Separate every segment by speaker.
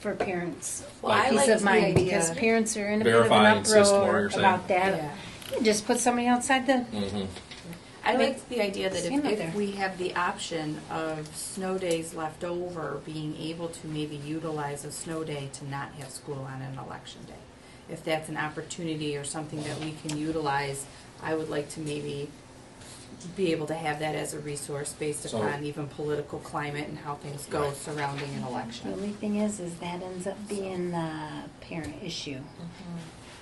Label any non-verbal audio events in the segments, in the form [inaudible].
Speaker 1: for parents,
Speaker 2: Well, I
Speaker 1: peace
Speaker 2: like
Speaker 1: of
Speaker 2: the
Speaker 1: mind,
Speaker 2: idea-
Speaker 1: because parents are in a bit of an
Speaker 3: Verifying system, what
Speaker 1: uproar
Speaker 3: you're saying.
Speaker 1: about
Speaker 2: Yeah.
Speaker 1: that. You Just put somebody outside the,
Speaker 3: Mhm.
Speaker 2: I like the idea that
Speaker 1: Same
Speaker 2: if,
Speaker 1: up there.
Speaker 2: if we have the option of snow days left over, being able to maybe utilize a snow day to not have school on an election day. If that's an opportunity or something that we can utilize, I would like to maybe be able to have that as a resource based
Speaker 3: So-
Speaker 2: upon even political climate and how things go
Speaker 3: Right.
Speaker 2: surrounding an
Speaker 1: the
Speaker 2: election.
Speaker 1: only thing is, is that ends up being the parent issue.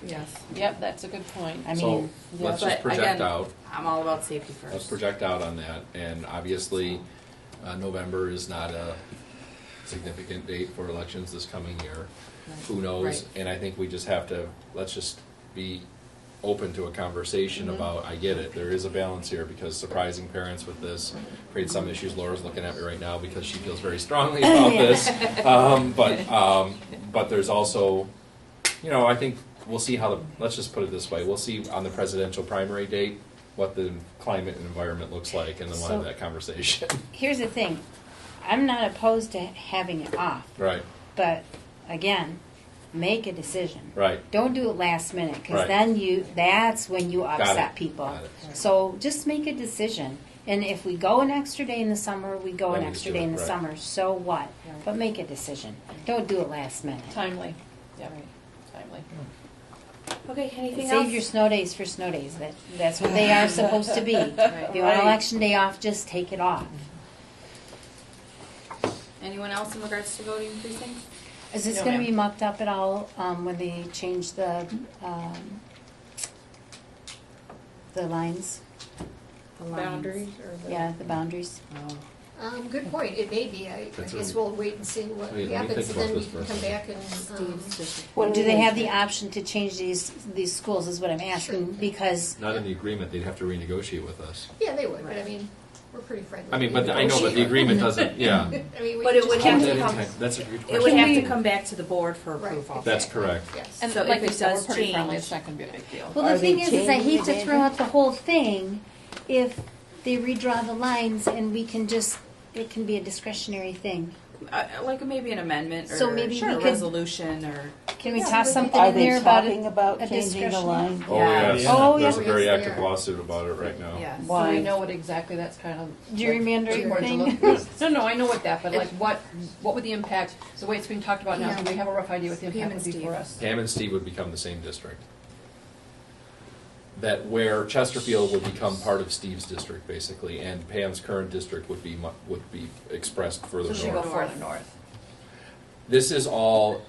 Speaker 2: Yes.
Speaker 4: Yep, that's a good point.
Speaker 1: I
Speaker 3: So,
Speaker 1: mean,
Speaker 3: let's
Speaker 2: But
Speaker 3: just project
Speaker 2: again,
Speaker 3: out.
Speaker 2: I'm all about safety 1st
Speaker 3: Let's project out on that, and obviously, uh, November is not a significant date for elections this coming year. Who knows?
Speaker 2: Right.
Speaker 3: And I think we just have to, let's just be open to a conversation
Speaker 2: Mm-hmm.
Speaker 3: about, I get it, there is a balance here, because surprising parents with this creates some issues. Laura's looking at me right now because she feels
Speaker 2: [laughs]
Speaker 3: very strongly about this. Um, but, um, but there's also, you know, I think we'll see how the, let's just put it this way, we'll see on the presidential primary date what the climate and environment looks like, and then we'll have
Speaker 1: So-
Speaker 3: that conversation. [laughs]
Speaker 1: here's the thing, I'm not opposed to having it off,
Speaker 3: Right,
Speaker 1: but again, make a decision.
Speaker 3: right.
Speaker 1: Don't do it last minute, because
Speaker 3: Right.
Speaker 1: then you, that's when you
Speaker 3: Got it.
Speaker 1: upset people.
Speaker 3: Got it.
Speaker 1: So just make a decision. And if we go an extra day in the summer, we go an
Speaker 3: Then we
Speaker 1: extra
Speaker 3: do
Speaker 1: day
Speaker 3: it,
Speaker 1: in the
Speaker 3: right.
Speaker 1: summer. So what?
Speaker 2: Right.
Speaker 1: But make a decision. Don't do it last minute.
Speaker 4: Timely, yeah, timely.
Speaker 2: Okay, anything else?
Speaker 1: Save your snow days for snow days. That, that's what they are supposed to be. If you want
Speaker 2: Right.
Speaker 1: election day off, just take it off.
Speaker 2: Anyone else in regards to voting precincts?
Speaker 1: Is this
Speaker 4: No,
Speaker 1: going to
Speaker 4: ma'am.
Speaker 1: be mucked up at all um, when they change the um, the lines?
Speaker 2: Boundaries.
Speaker 5: or the-
Speaker 1: Yeah, the boundaries.
Speaker 5: Um, good point, it may be, I, I
Speaker 3: That's
Speaker 5: guess
Speaker 3: a-
Speaker 5: we'll wait and see what
Speaker 3: Wait, let me
Speaker 5: happens,
Speaker 3: think about
Speaker 5: then we
Speaker 3: this for
Speaker 5: can
Speaker 3: a
Speaker 5: come back
Speaker 3: second.
Speaker 5: and, um,
Speaker 2: Steve's just-
Speaker 1: Do they have the option to change these, these schools is what I'm asking,
Speaker 5: Sure.
Speaker 1: because,
Speaker 3: Not in the agreement, they'd have to renegotiate with us.
Speaker 5: yeah, they would, but I
Speaker 2: Right.
Speaker 5: mean, we're pretty friendly.
Speaker 3: I mean, but I know, but the
Speaker 2: [laughs]
Speaker 3: agreement doesn't, yeah.
Speaker 5: [laughs] I mean, we
Speaker 2: But
Speaker 5: can
Speaker 2: it would have
Speaker 3: Hold
Speaker 5: just-
Speaker 2: to
Speaker 3: that in
Speaker 2: come-
Speaker 3: time. That's a good
Speaker 2: It would
Speaker 3: question.
Speaker 2: have to come back to the board for
Speaker 5: Right.
Speaker 2: approval.
Speaker 3: That's correct.
Speaker 5: Yes.
Speaker 4: And
Speaker 2: So
Speaker 4: like
Speaker 2: if
Speaker 4: we
Speaker 2: it
Speaker 4: said,
Speaker 2: does
Speaker 4: we're pretty friendly,
Speaker 2: change-
Speaker 4: it's not gonna be a big deal.
Speaker 1: well, the
Speaker 6: Are they
Speaker 1: thing is, is I
Speaker 6: changing
Speaker 1: hate to
Speaker 6: it?
Speaker 1: throw out the whole thing if they redraw the lines and we can just, it can be a discretionary thing.
Speaker 2: Uh, like maybe an amendment or
Speaker 1: So maybe
Speaker 2: sure,
Speaker 1: we
Speaker 2: a
Speaker 1: could-
Speaker 2: resolution or.
Speaker 1: Can we toss something
Speaker 6: Are
Speaker 1: in
Speaker 6: they
Speaker 1: there about
Speaker 6: talking
Speaker 1: it?
Speaker 6: about
Speaker 1: a
Speaker 6: changing the
Speaker 1: discretion?
Speaker 6: line?
Speaker 3: Oh,
Speaker 2: Yeah.
Speaker 3: yes.
Speaker 1: Oh,
Speaker 3: There's a
Speaker 5: yeah.
Speaker 3: very
Speaker 5: Yes, they
Speaker 3: active
Speaker 5: are.
Speaker 3: lawsuit about it right now.
Speaker 2: Yes.
Speaker 6: Why?
Speaker 4: So we know what exactly that's kind of. like,
Speaker 1: Gerrymandering
Speaker 4: towards
Speaker 1: thing?
Speaker 4: a little- No, no, I know what that, but like what, what would the impact, the way it's being talked about now, do we have a rough idea what the
Speaker 2: Pam
Speaker 4: impact
Speaker 2: and
Speaker 4: would be
Speaker 2: Steve.
Speaker 4: for us?
Speaker 3: Hammond Steve would become the same district. That where Chesterfield would become part of Steve's district, basically, and Pam's current district would be, mu- would be expressed further
Speaker 4: So should we go
Speaker 3: north.
Speaker 4: further north?
Speaker 3: This is all,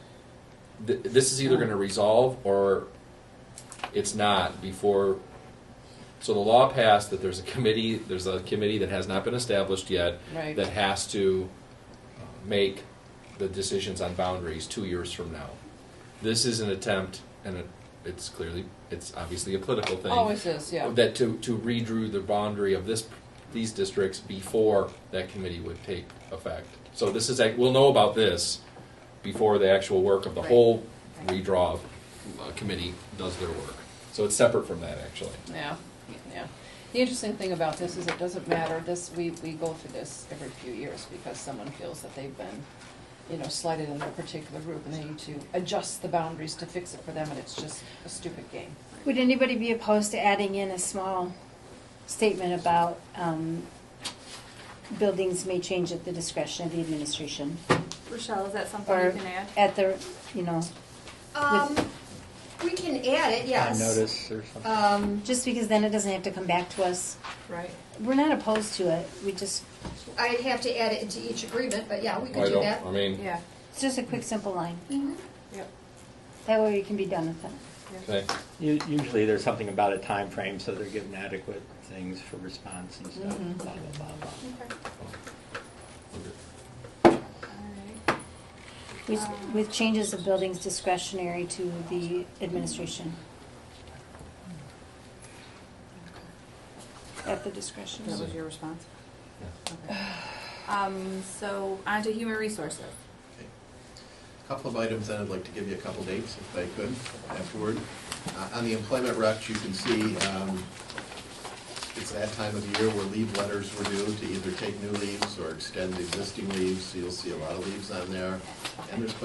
Speaker 3: th- this is either gonna resolve or it's not before, so the law passed that there's a committee, there's a committee that has not been established yet.
Speaker 4: Right.
Speaker 3: That has to uh, make the decisions on boundaries two years from now. This is an attempt, and it, it's clearly, it's obviously a political thing.
Speaker 4: Always is, yeah.
Speaker 3: That to, to redrew the boundary of this, these districts before that committee would take effect. So this is, a- we'll know about this before the actual work of the
Speaker 2: Right.
Speaker 3: whole redraw uh, committee does their work. So it's separate from that, actually.
Speaker 4: Yeah, yeah. The interesting thing about this is it doesn't matter, this, we, we go through this every few years because someone feels that they've been, you know, slighted in their particular group and they need to adjust the boundaries to fix it for them and it's just a stupid game.
Speaker 1: [laughs] Would anybody be opposed to adding in a small statement about, um, buildings may change at the discretion of the administration?
Speaker 2: Rochelle, is that something
Speaker 1: Or
Speaker 2: you can add?
Speaker 1: at the, you know,
Speaker 5: Um, we can add it, yes.
Speaker 7: notice or something.
Speaker 5: Um,
Speaker 1: just because then it doesn't have to come back to us.
Speaker 5: right,
Speaker 1: We're not opposed to it, we just,
Speaker 5: I'd have to add it into each agreement, but yeah, we
Speaker 3: I
Speaker 5: could do
Speaker 3: don't-
Speaker 5: that.
Speaker 3: I mean.
Speaker 2: Yeah.
Speaker 1: it's just a quick, simple line.
Speaker 5: Mhm.
Speaker 2: Yep.
Speaker 1: That way we can be done with it.
Speaker 3: Okay.
Speaker 7: U- Usually there's something about a time frame, so they're given adequate things for response and stuff,
Speaker 2: Mm-hmm.
Speaker 4: Mhm.
Speaker 7: blah, blah, blah, blah.
Speaker 5: Mm-hmm.
Speaker 2: Okay. All right.
Speaker 1: With, with changes of buildings discretionary to the administration. At the discretion.
Speaker 2: That was your response? Okay. Um, so on to human resources.
Speaker 8: Couple of items, and I'd like to give you a couple dates if I could afterward. Uh, On the employment recs, you can see um, it's that time of year where leave letters were due to either take new leaves or extend existing leaves. So You'll see a lot of leaves on there. And there's